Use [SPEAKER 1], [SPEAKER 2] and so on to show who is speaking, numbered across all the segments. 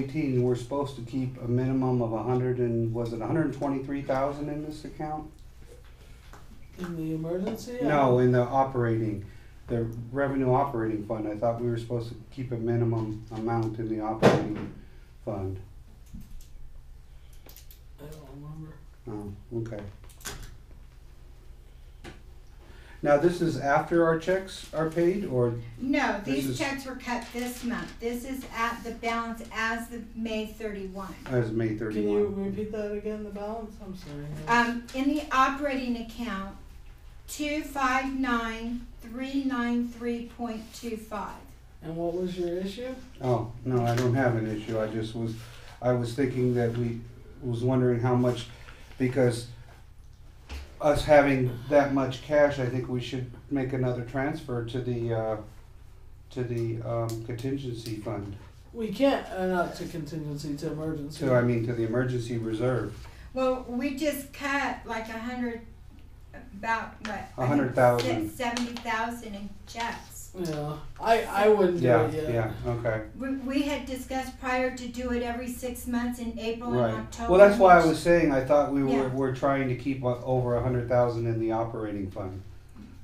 [SPEAKER 1] Eighteen, we're supposed to keep a minimum of a hundred and, was it hundred and twenty-three thousand in this account?
[SPEAKER 2] In the emergency? I
[SPEAKER 1] No, in the operating, the revenue operating fund, I thought we were supposed to keep a minimum amount in the operating fund.
[SPEAKER 2] don't- I don't remember.
[SPEAKER 1] Oh, okay. Now, this is after our checks are paid, or,
[SPEAKER 3] No,
[SPEAKER 1] This
[SPEAKER 3] these
[SPEAKER 1] is-
[SPEAKER 3] checks were cut this month. This is at the balance as of May thirty-one.
[SPEAKER 1] as May
[SPEAKER 2] Can you
[SPEAKER 1] thirty-one?
[SPEAKER 2] repeat that again, the balance? I'm sorry.
[SPEAKER 3] Um, in the operating account, two five nine three nine three point two five.
[SPEAKER 2] And what was your issue?
[SPEAKER 1] Oh, no, I don't have an issue, I just was, I was thinking that we, was wondering how much, because us having that much cash, I think we should make another transfer to the, uh, to the, um, contingency fund,
[SPEAKER 2] We can't, uh, not to contingency, to emergency.
[SPEAKER 1] to, I mean, to the emergency reserve,
[SPEAKER 3] Well, we just cut like a hundred, about what?
[SPEAKER 1] a hundred thousand.
[SPEAKER 3] Seventy thousand in checks.
[SPEAKER 2] Yeah, I, I wouldn't do
[SPEAKER 1] Yeah,
[SPEAKER 2] it yet.
[SPEAKER 1] yeah, okay.
[SPEAKER 3] We, we had discussed prior to do it every six months in April and
[SPEAKER 1] Right.
[SPEAKER 3] October.
[SPEAKER 1] Well, that's why I was saying, I thought we
[SPEAKER 3] Yeah.
[SPEAKER 1] were, were trying to keep o- over a hundred thousand in the operating fund,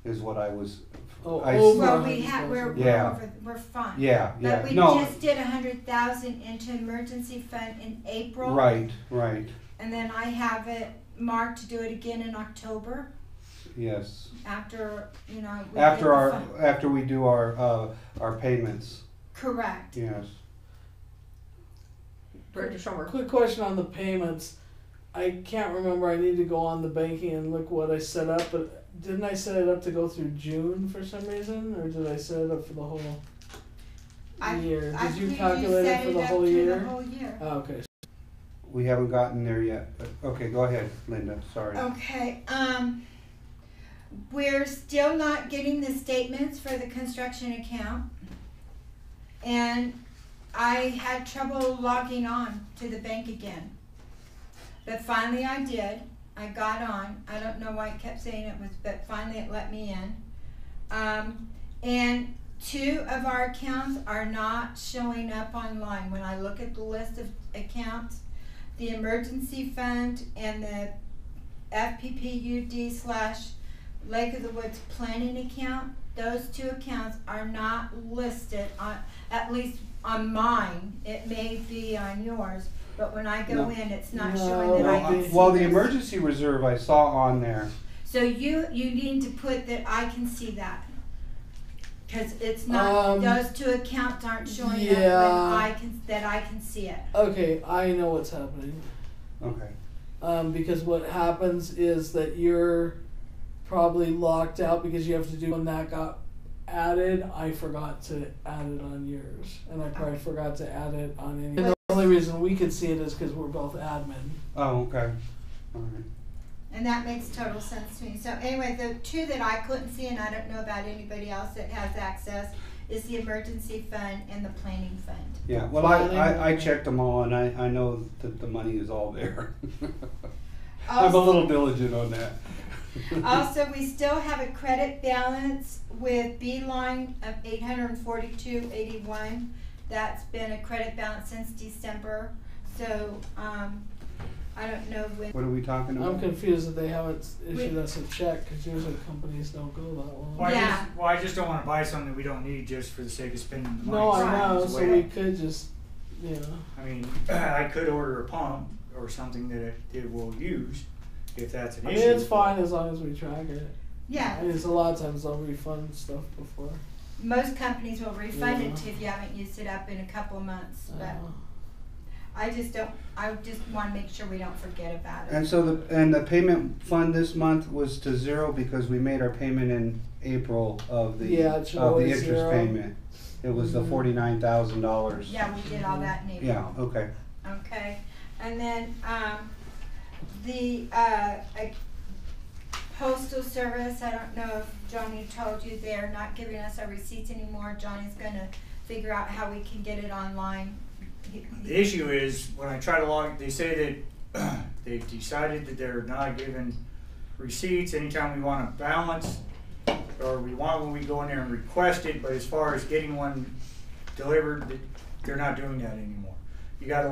[SPEAKER 1] is what I was,
[SPEAKER 2] Oh,
[SPEAKER 1] I-
[SPEAKER 2] over
[SPEAKER 3] Well, we
[SPEAKER 2] 100,000.
[SPEAKER 3] had, we're, we're,
[SPEAKER 1] Yeah.
[SPEAKER 3] over- we're fine.
[SPEAKER 1] yeah,
[SPEAKER 3] But
[SPEAKER 1] yeah,
[SPEAKER 3] we
[SPEAKER 1] no,
[SPEAKER 3] just did a hundred thousand into emergency fund in April.
[SPEAKER 1] right, right,
[SPEAKER 3] And then I have it marked to do it again in October
[SPEAKER 1] yes.
[SPEAKER 3] after, you know. we get the
[SPEAKER 1] After our,
[SPEAKER 3] fund.
[SPEAKER 1] after we do our, uh, our payments,
[SPEAKER 3] Correct.
[SPEAKER 1] yes.
[SPEAKER 4] Director Schomburg.
[SPEAKER 2] Quick question on the payments. I can't remember. I need to go on the banking and look what I set up, but didn't I set it up to go through June for some reason, or did I set it up for the whole
[SPEAKER 3] I-
[SPEAKER 2] year?
[SPEAKER 3] I
[SPEAKER 2] Did you
[SPEAKER 3] believe
[SPEAKER 2] calculate
[SPEAKER 3] set
[SPEAKER 2] it for the
[SPEAKER 3] up
[SPEAKER 2] whole
[SPEAKER 3] to the
[SPEAKER 2] year?
[SPEAKER 3] whole year.
[SPEAKER 2] Oh, okay.
[SPEAKER 1] We haven't gotten there yet, but, okay, go ahead, Linda, sorry.
[SPEAKER 3] Okay, um, we're still not getting the statements for the construction account. And I had trouble logging on to the bank again. But finally I did, I got on, I don't know why it kept saying it was, but finally it let me in. Um, and two of our accounts are not showing up online, when I look at the list of accounts, the emergency fund and the FPPUD slash Lake of the Woods planning account, those two accounts are not listed on, at least on mine, it may be on yours, but when I go
[SPEAKER 1] No.
[SPEAKER 3] in, it's not
[SPEAKER 2] No,
[SPEAKER 3] showing that I
[SPEAKER 2] I-
[SPEAKER 3] can
[SPEAKER 1] Well,
[SPEAKER 3] see.
[SPEAKER 1] well, the
[SPEAKER 3] this.
[SPEAKER 1] emergency reserve I saw on there,
[SPEAKER 3] So you, you need to put that I can see that. Cause it's not,
[SPEAKER 2] Um,
[SPEAKER 3] those two accounts aren't showing up when
[SPEAKER 2] yeah.
[SPEAKER 3] I can, that I can see it.
[SPEAKER 2] Okay, I know what's happening.
[SPEAKER 1] okay,
[SPEAKER 2] Um, because what happens is that you're probably locked out because you have to do when that got added. I forgot to add it on yours, and I probably forgot to add it on any. And the only reason we could see it is because we're both admin.
[SPEAKER 1] oh, okay, all right.
[SPEAKER 3] And that makes total sense to me. So anyway, the two that I couldn't see and I don't know about anybody else that has access is the emergency fund and the planning fund.
[SPEAKER 1] Yeah, well, I, I, I checked them all and I, I know that the money is all there. I'm a
[SPEAKER 3] Also-
[SPEAKER 1] little diligent on that.
[SPEAKER 3] Also, we still have a credit balance with Beeline of eight hundred and forty-two eighty-one. That's been a credit balance since December, so, um, I don't know when,
[SPEAKER 1] What are we talking
[SPEAKER 2] I'm
[SPEAKER 5] Mm-hmm.
[SPEAKER 1] about?
[SPEAKER 2] confused that they haven't issued us a check because usually companies don't go that long.
[SPEAKER 5] Well, I
[SPEAKER 3] Yeah.
[SPEAKER 5] just, well, I just don't wanna buy something we don't need just for the sake of spending the money.
[SPEAKER 2] No, I
[SPEAKER 3] Right.
[SPEAKER 2] know.
[SPEAKER 5] It's
[SPEAKER 2] So
[SPEAKER 5] way-
[SPEAKER 2] we could just, you know.
[SPEAKER 5] I mean, I could order a pump or something that it, it will use if that's an
[SPEAKER 2] I mean,
[SPEAKER 5] issue.
[SPEAKER 2] it's fine as long as we track it.
[SPEAKER 3] yeah,
[SPEAKER 2] And it's a lot of times they'll refund stuff before.
[SPEAKER 3] most companies will refund it
[SPEAKER 2] Yeah.
[SPEAKER 3] to you if you haven't used it up in a couple of months, but
[SPEAKER 2] Uh,
[SPEAKER 3] I just don't, I just wanna make sure we don't forget about it.
[SPEAKER 1] And so the, and the payment fund this month was to zero because we made our payment in April of the,
[SPEAKER 2] Yeah,
[SPEAKER 1] of
[SPEAKER 2] it's
[SPEAKER 1] the
[SPEAKER 2] always
[SPEAKER 1] interest
[SPEAKER 2] zero.
[SPEAKER 1] payment. It was the
[SPEAKER 2] Mhm.
[SPEAKER 1] forty-nine thousand dollars.
[SPEAKER 3] Yeah, we did all that in April.
[SPEAKER 1] Yeah, okay,
[SPEAKER 3] Okay, and then, um, the, uh, I- postal service, I don't know if Johnny told you, they're not giving us our receipts anymore. Johnny's gonna figure out how we can get it online. He-
[SPEAKER 5] The issue is, when I try to log, they say that they've decided that they're not giving receipts anytime we want a balance, or we want when we go in there and request it, but as far as getting one delivered, that- they're not doing that anymore. you gotta